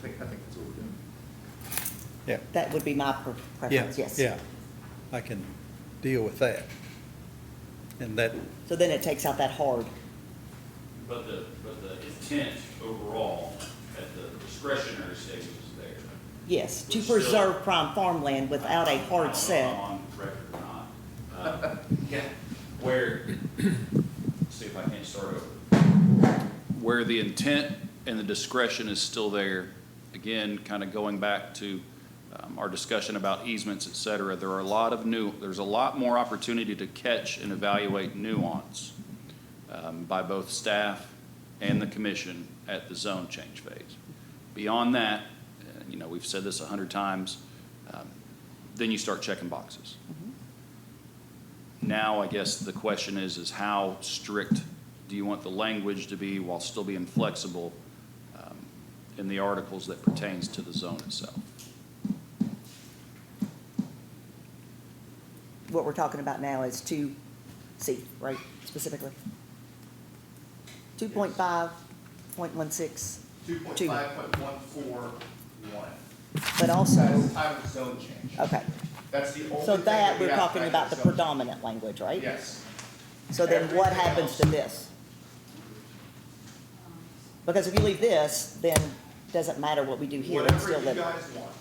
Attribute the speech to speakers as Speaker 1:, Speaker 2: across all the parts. Speaker 1: think, I think that's what we're doing.
Speaker 2: Yeah,
Speaker 3: That would be my pre-
Speaker 2: yeah,
Speaker 3: preference, yes.
Speaker 2: yeah. I can deal with that. And that,
Speaker 3: So then it takes out that hard.
Speaker 4: But the, but the intent overall at the discretionary stage was there.
Speaker 3: Yes, to
Speaker 4: Which still-
Speaker 3: preserve prime farmland without a
Speaker 4: I don't know
Speaker 3: hard
Speaker 4: if I'm
Speaker 3: set.
Speaker 4: On record or not. Uh, Where, see if I can start over. Where the intent and the discretion is still there, again, kind of going back to um, our discussion about easements, et cetera, there are a lot of new, there's a lot more opportunity to catch and evaluate nuance um, by both staff and the commission at the zone change phase. Beyond that, uh, you know, we've said this a hundred times, um, then you start checking boxes. Now, I guess the question is, is how strict do you want the language to be while still being flexible um, in the articles that pertains to the zone itself?
Speaker 3: What we're talking about now is two C, right, specifically? Two point five, point one six,
Speaker 1: Two point five point one four one,
Speaker 3: but also,
Speaker 1: that's time of zone change.
Speaker 3: okay.
Speaker 1: That's the only
Speaker 3: So
Speaker 1: thing
Speaker 3: that,
Speaker 1: we
Speaker 3: we're
Speaker 1: have
Speaker 3: talking
Speaker 1: time
Speaker 3: about the
Speaker 1: of zone change.
Speaker 3: predominant language, right?
Speaker 1: Yes,
Speaker 3: So then what
Speaker 1: Everything
Speaker 3: happens to
Speaker 1: else.
Speaker 3: this? Because if you leave this, then doesn't matter what we do here, it's
Speaker 1: whatever
Speaker 3: still
Speaker 1: you
Speaker 3: living.
Speaker 1: guys want.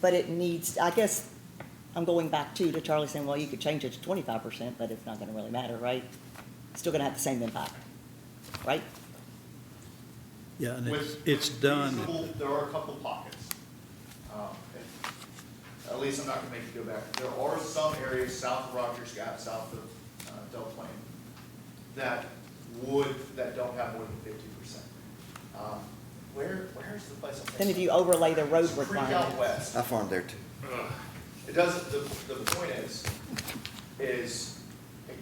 Speaker 3: But it needs, I guess, I'm going back to, to Charlie saying, well, you could change it to twenty-five percent, but it's not gonna really matter, right? Still gonna have the same impact, right?
Speaker 2: yeah, and it's,
Speaker 1: With
Speaker 2: it's done.
Speaker 1: reasonable- There are a couple pockets. Um, and At least I'm not gonna make you go back. There are some areas south of Rogers Gap, south of uh, Del Plaine, that would, that don't have more than fifty percent. Um, Where, where's the place? I'm
Speaker 3: Then if
Speaker 1: thinking?
Speaker 3: you overlay the road
Speaker 1: It's Creek out
Speaker 3: requirement,
Speaker 1: west.
Speaker 5: I farmed there too.
Speaker 1: It doesn't, the, the point is, is,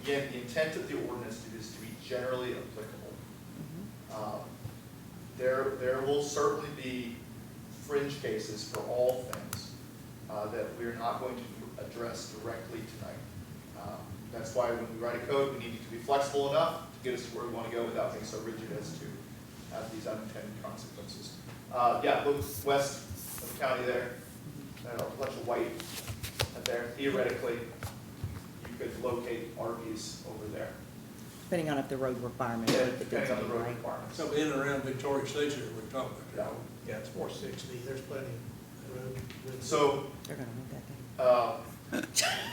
Speaker 1: again, the intent of the ordinance is to be generally applicable.
Speaker 3: Mm-hmm.
Speaker 1: Um, There, there will certainly be fringe cases for all things uh, that we're not going to address directly tonight. Um, That's why when we write a code, we need it to be flexible enough to get us to where we want to go without being so rigid as to have these unintended consequences. Uh, Yeah, look west of the county there, I don't know, a bunch of white up there, theoretically, you could locate RVs over there,
Speaker 3: depending on if the road requirement.
Speaker 1: Yeah,
Speaker 3: if it
Speaker 1: depending on the road
Speaker 3: right?
Speaker 1: requirements.
Speaker 6: So in and around Victoria Station, we're talking about.
Speaker 7: Yeah, it's four sixty, there's plenty of room. with-
Speaker 1: So,
Speaker 3: They're gonna want that thing.
Speaker 1: uh,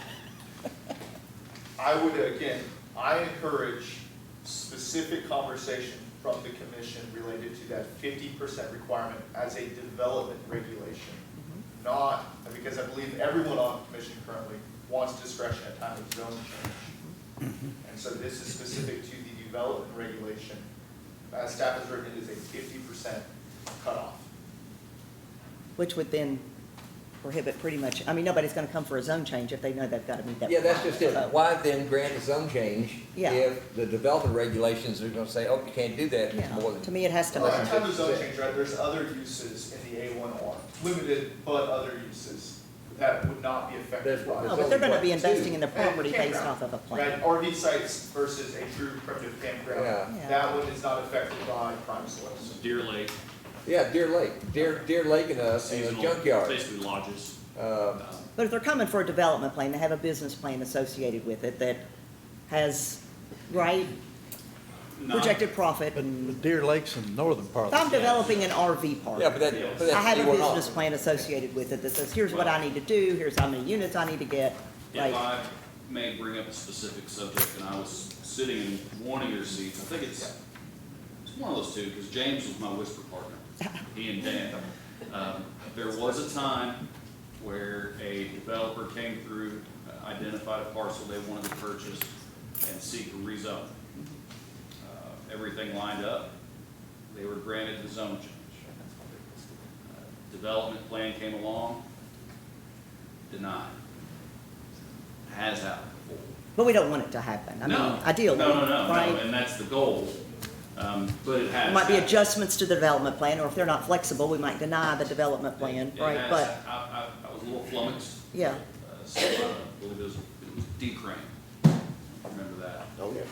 Speaker 1: I would, again, I encourage specific conversation from the commission related to that fifty percent requirement as a development regulation.
Speaker 3: Mm-hmm.
Speaker 1: Not, because I believe everyone on the commission currently wants discretion at time of zone change. And so this is specific to the development regulation, as staff has written, it is a fifty percent cutoff.
Speaker 3: Which would then prohibit pretty much, I mean, nobody's gonna come for a zone change if they know they've gotta meet that.
Speaker 8: Yeah, that's just it.
Speaker 3: requirement.
Speaker 8: Why then grant a zone change?
Speaker 3: Yeah.
Speaker 8: If the development regulations are gonna say, oh, you can't do that, it's more
Speaker 3: Yeah,
Speaker 8: than.
Speaker 3: to me, it has to
Speaker 1: Well, that
Speaker 3: match.
Speaker 1: type of zone change, right, there's other uses in the A one R, limited but other uses that would not be affected
Speaker 8: There's one.
Speaker 1: by.
Speaker 3: No,
Speaker 1: it.
Speaker 3: Oh, but they're gonna be
Speaker 8: Two.
Speaker 3: investing in the
Speaker 1: And
Speaker 3: property based
Speaker 1: campground,
Speaker 3: off of a
Speaker 1: Right,
Speaker 3: plan.
Speaker 1: RV sites versus a true primitive campground,
Speaker 8: Yeah.
Speaker 3: Yeah.
Speaker 1: that one is not affected by prime
Speaker 4: So
Speaker 1: soils.
Speaker 4: Deer Lake,
Speaker 8: Yeah, Deer Lake, Deer, Deer Lake and us, and the
Speaker 4: seasonal,
Speaker 8: junkyard.
Speaker 4: basically lodges.
Speaker 8: Uh,
Speaker 4: Um,
Speaker 3: But if they're coming for a development plan, they have a business plan associated with it that has, right,
Speaker 4: not-
Speaker 3: projected profit and.
Speaker 2: But Deer Lake's in the northern part of
Speaker 3: If
Speaker 2: the
Speaker 3: I'm developing an RV
Speaker 8: yeah, but
Speaker 3: park,
Speaker 8: that, but that's.
Speaker 3: I have a
Speaker 8: they were not.
Speaker 3: business plan associated with it that says, here's what I need to do, here's how many units I need to get,
Speaker 4: If
Speaker 3: like,
Speaker 4: I may bring up a specific subject, and I was sitting in one of your seats, I think it's, it's one of those two, because James was my whisper partner, he and Dan. Um, There was a time where a developer came through, uh, identified a parcel they wanted to purchase and seek a rezone. Uh, Everything lined up, they were granted the zone change. Uh, Development plan came along, denied has happened before.
Speaker 3: but we don't want it to happen, I mean,
Speaker 4: No.
Speaker 3: ideally,
Speaker 4: No, no, no, no,
Speaker 3: right?
Speaker 4: and that's the goal, um, but it has.
Speaker 3: There Might be
Speaker 4: happened.
Speaker 3: adjustments to the development plan, or if they're not flexible, we might deny the development plan,
Speaker 4: It- it
Speaker 3: right,
Speaker 4: has-
Speaker 3: but,
Speaker 4: I, I, I was a little flummoxed,
Speaker 3: yeah.
Speaker 4: uh, so, uh, I believe it was, it was D-Crane, remember that? Uh,
Speaker 5: Oh, yeah.